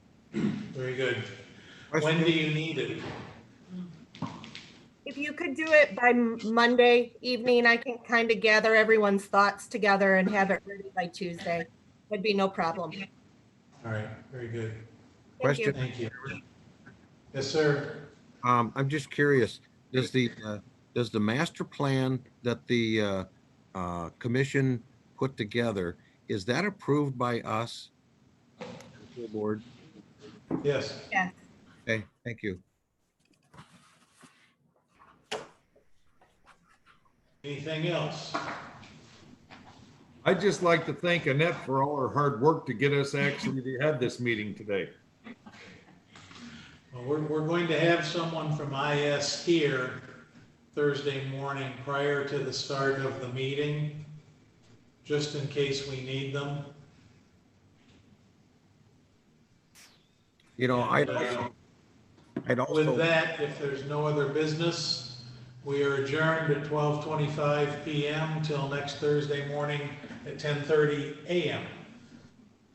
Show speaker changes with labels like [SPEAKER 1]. [SPEAKER 1] Very good. When do you need it?
[SPEAKER 2] If you could do it by M- Monday evening, I can kind of gather everyone's thoughts together and have it ready by Tuesday. Would be no problem.
[SPEAKER 1] All right, very good.
[SPEAKER 2] Thank you.
[SPEAKER 3] Question.
[SPEAKER 1] Thank you. Yes, sir.
[SPEAKER 3] Um, I'm just curious, does the, uh, does the master plan that the, uh, uh, commission put together, is that approved by us? Full Board,
[SPEAKER 1] Yes.
[SPEAKER 2] Yes.
[SPEAKER 3] okay, thank you.
[SPEAKER 1] Anything else?
[SPEAKER 4] I'd just like to thank Annette for all her hard work to get us actually to have this meeting today.
[SPEAKER 1] Well, we're, we're going to have someone from IS here Thursday morning prior to the start of the meeting, just in case we need them.
[SPEAKER 3] You know, I'd
[SPEAKER 1] And, uh,
[SPEAKER 3] also,
[SPEAKER 1] With
[SPEAKER 3] I'd also,
[SPEAKER 1] that, if there's no other business, we are adjourned at 12:25 PM till next Thursday morning at 10:30 AM.